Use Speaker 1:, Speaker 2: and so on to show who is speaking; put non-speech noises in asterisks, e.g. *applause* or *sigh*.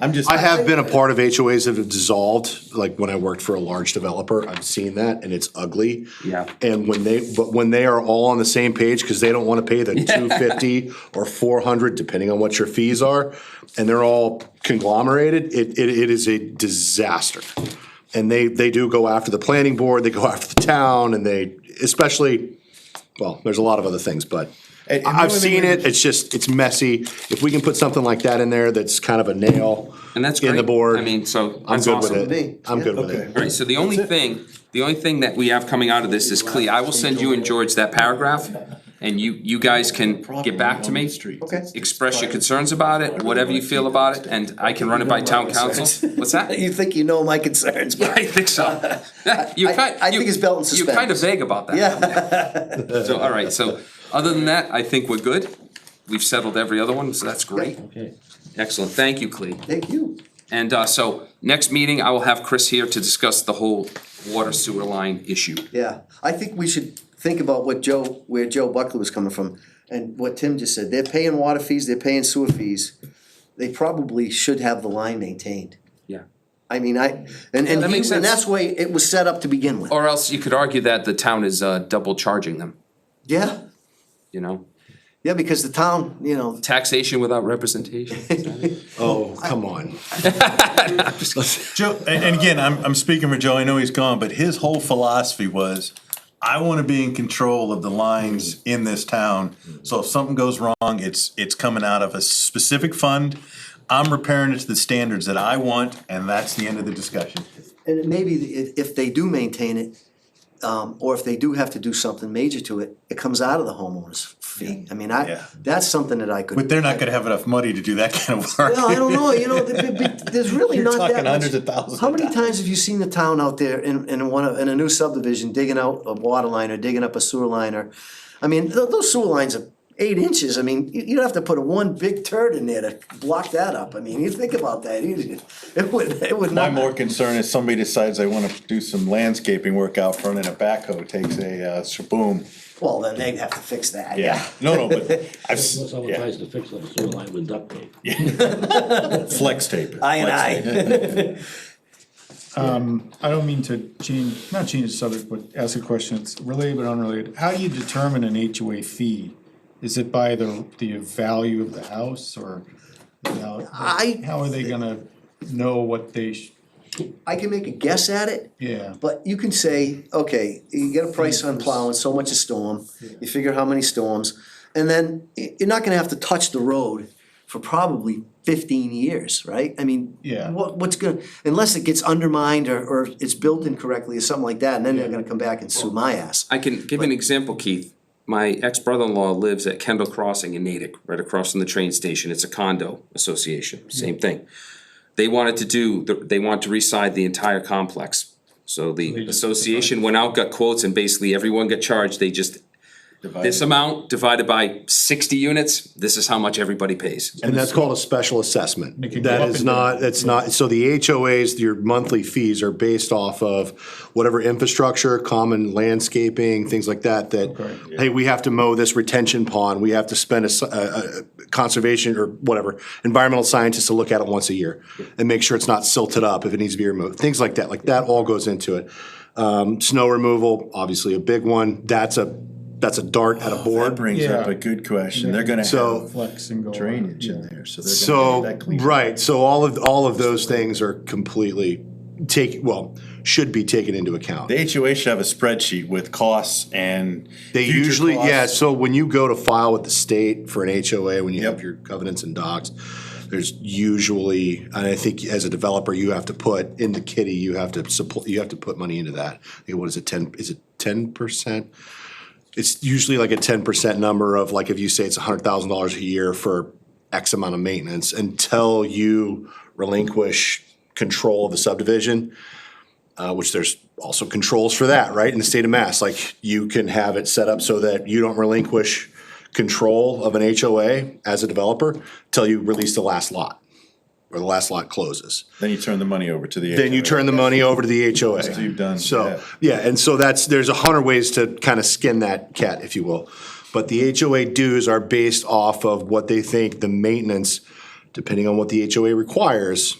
Speaker 1: I'm just.
Speaker 2: I have been a part of HOAs that have dissolved, like when I worked for a large developer, I've seen that and it's ugly.
Speaker 3: Yeah.
Speaker 2: And when they, but when they are all on the same page, cause they don't wanna pay the two fifty or four hundred, depending on what your fees are, and they're all conglomerated, it, it, it is a disaster. And they, they do go after the planning board, they go *laughs* after the town, and they, especially, well, there's a lot of other things, but
Speaker 1: And- and the
Speaker 2: I've
Speaker 1: only
Speaker 2: seen
Speaker 1: way-
Speaker 2: it, it's just, it's messy. If we can put something like that in there, that's kind of a nail.
Speaker 3: And that's
Speaker 2: In the
Speaker 3: great.
Speaker 2: board.
Speaker 3: I mean, so
Speaker 2: I'm
Speaker 3: that's
Speaker 2: good
Speaker 3: awesome.
Speaker 2: with
Speaker 1: me.
Speaker 2: it. I'm good with
Speaker 1: Yeah,
Speaker 2: it.
Speaker 3: All right, so the only thing, the only thing that we have coming out of this is Clea, I will send you and George that paragraph, and you, you guys can get back to me.
Speaker 1: Okay.
Speaker 3: Express your concerns about it, whatever you feel about it, and I can run it by town council. What's
Speaker 4: *laughs*
Speaker 3: that?
Speaker 4: You think you know my concerns, but
Speaker 3: I think so. *laughs* You
Speaker 4: I-
Speaker 3: kind,
Speaker 4: I
Speaker 3: you-
Speaker 4: think it's belt and
Speaker 3: You're kind of
Speaker 4: suspenders.
Speaker 3: vague about that.
Speaker 4: *laughs* yeah,
Speaker 3: So, all right, so, other than that, I think we're good. We've settled every other one, so that's great.
Speaker 1: Okay.
Speaker 3: Excellent, thank you, Clea.
Speaker 4: thank you.
Speaker 3: And uh, so, next meeting, I will have Chris here to discuss the whole water sewer line issue.
Speaker 4: Yeah, I think we should think about what Joe, where Joe Buckley was coming from, and what Tim just said, they're paying water fees, they're paying sewer fees. They probably should have the line maintained.
Speaker 3: Yeah.
Speaker 4: I mean, I, and, and
Speaker 3: That
Speaker 4: he,
Speaker 3: makes
Speaker 4: and
Speaker 3: sense.
Speaker 4: that's the way it was set up to begin with,
Speaker 3: Or else you could argue that the town is uh, double charging them,
Speaker 4: yeah,
Speaker 3: you know?
Speaker 4: yeah, because the town, you know,
Speaker 3: Taxation without representation.
Speaker 2: Oh, come on.
Speaker 1: Joe,
Speaker 5: And, and again, I'm, I'm speaking for Joe, I know he's gone, but his whole philosophy was, I wanna be in control of the lines
Speaker 4: Mm-hmm.
Speaker 5: in this town. So if something goes wrong, it's, it's coming out of a specific fund. I'm repairing it to the standards that I want, and that's the end of the discussion.
Speaker 4: and maybe if, if they do maintain it, um, or if they do have to do something major to it, it comes out of the homeowner's fee. I mean, I,
Speaker 5: Yeah.
Speaker 4: that's something that I could.
Speaker 5: But they're not gonna have enough money to do that *laughs* kind of work.
Speaker 4: Well, I don't know, you know, th- th- th-
Speaker 5: *laughs*
Speaker 4: there's really
Speaker 5: You're
Speaker 4: not that much.
Speaker 5: talking hundreds of thousands of
Speaker 4: How many times have you seen the town out there in, in one of, in a new subdivision digging out a water line or digging up a sewer line or, I mean, tho- those sewer lines are eight inches, I mean, you, you'd have to put a one big turd in there to block that up, I mean, you think about that, you- it would, it would
Speaker 5: My
Speaker 4: not.
Speaker 5: more concern is somebody decides they wanna do some landscaping work out front and a backhoe takes a, uh, shaboom.
Speaker 4: Well, then they'd have to fix that,
Speaker 5: Yeah,
Speaker 4: yeah.
Speaker 5: no, no,
Speaker 4: *laughs*
Speaker 5: but I've, s-
Speaker 6: Unless someone
Speaker 5: yeah,
Speaker 6: tries to fix that sewer line with duct tape.
Speaker 5: flex tape.
Speaker 4: I and
Speaker 5: Flex
Speaker 4: I.
Speaker 5: tape.
Speaker 7: I don't mean to change, not change the subject, but ask a question, it's related but unrelated. How do you determine an HOA fee? Is it by the, the value of the house or? the val-
Speaker 4: I-
Speaker 7: How are they gonna know what they, sh-
Speaker 4: *laughs* I can make a guess at it.
Speaker 7: Yeah.
Speaker 4: But you can say, okay, you get a price on plowing, so much a storm, you figure how many storms, and then y- you're not gonna have to touch the road for probably fifteen years, right? I mean,
Speaker 7: Yeah.
Speaker 4: what, what's gonna, unless it gets undermined or, or it's built incorrectly or something like that, and then they're gonna come back and sue my ass.
Speaker 3: I can give you an example, Keith. My ex-brother-in-law lives at Kendall Crossing in Natick, right across from the train station. It's a condo association, same thing. They wanted to do, they want to reside the entire complex. So the association went out, got quotes, and basically everyone got charged. They just, this amount divided by sixty units, this is how much everybody pays.
Speaker 2: And that's called a special assessment.
Speaker 7: It can go
Speaker 2: That
Speaker 7: up
Speaker 2: is
Speaker 7: and
Speaker 2: not, that's not, so the HOAs, your monthly fees are based off of whatever infrastructure, common landscaping, things like that,
Speaker 7: Okay.
Speaker 2: that, hey, we have to mow this retention pond, we have to spend a, s- a- a conservation or whatever, environmental scientist to look at it once a year and make sure it's not silted up if it needs to be removed, things like that, like that all goes into it. Um, snow removal, obviously a big one, that's a, that's a dart at a
Speaker 5: That
Speaker 2: board.
Speaker 5: brings up
Speaker 7: Yeah.
Speaker 5: a good question. They're gonna
Speaker 2: So-
Speaker 5: have
Speaker 7: flex and go?
Speaker 5: drainage in there, so they're
Speaker 2: So,
Speaker 5: gonna have that clean.
Speaker 2: right, so all of, all of those things are completely take, well, should be taken into account.
Speaker 5: The HOA should have a spreadsheet with costs and.
Speaker 2: They
Speaker 5: future
Speaker 2: usually, yeah,
Speaker 5: costs.
Speaker 2: so when you go to file with the state for an HOA, when you have
Speaker 5: Yep.
Speaker 2: your covenants and docs, there's usually, and I think as a developer, you have to put in the kitty, you have to support, you have to put money into that. Hey, What is it, ten, is it ten percent? It's usually like a ten percent number of like, if you say it's a hundred thousand dollars a year for X amount of maintenance until you relinquish control of the subdivision uh, which there's also controls for that, right, in the state of Mass. Like, you can have it set up so that you don't relinquish control of an HOA as a developer till you release the last lot, or the last lot closes.
Speaker 5: Then you turn the money over to the.
Speaker 2: Then you
Speaker 5: HOA.
Speaker 2: turn the money over to the HOA.
Speaker 5: So you've done,
Speaker 2: So, yeah, and so that's, there's a hundred ways to kind of skin that cat, if you will. But the HOA dues are based off of what they think the maintenance depending on what the HOA requires,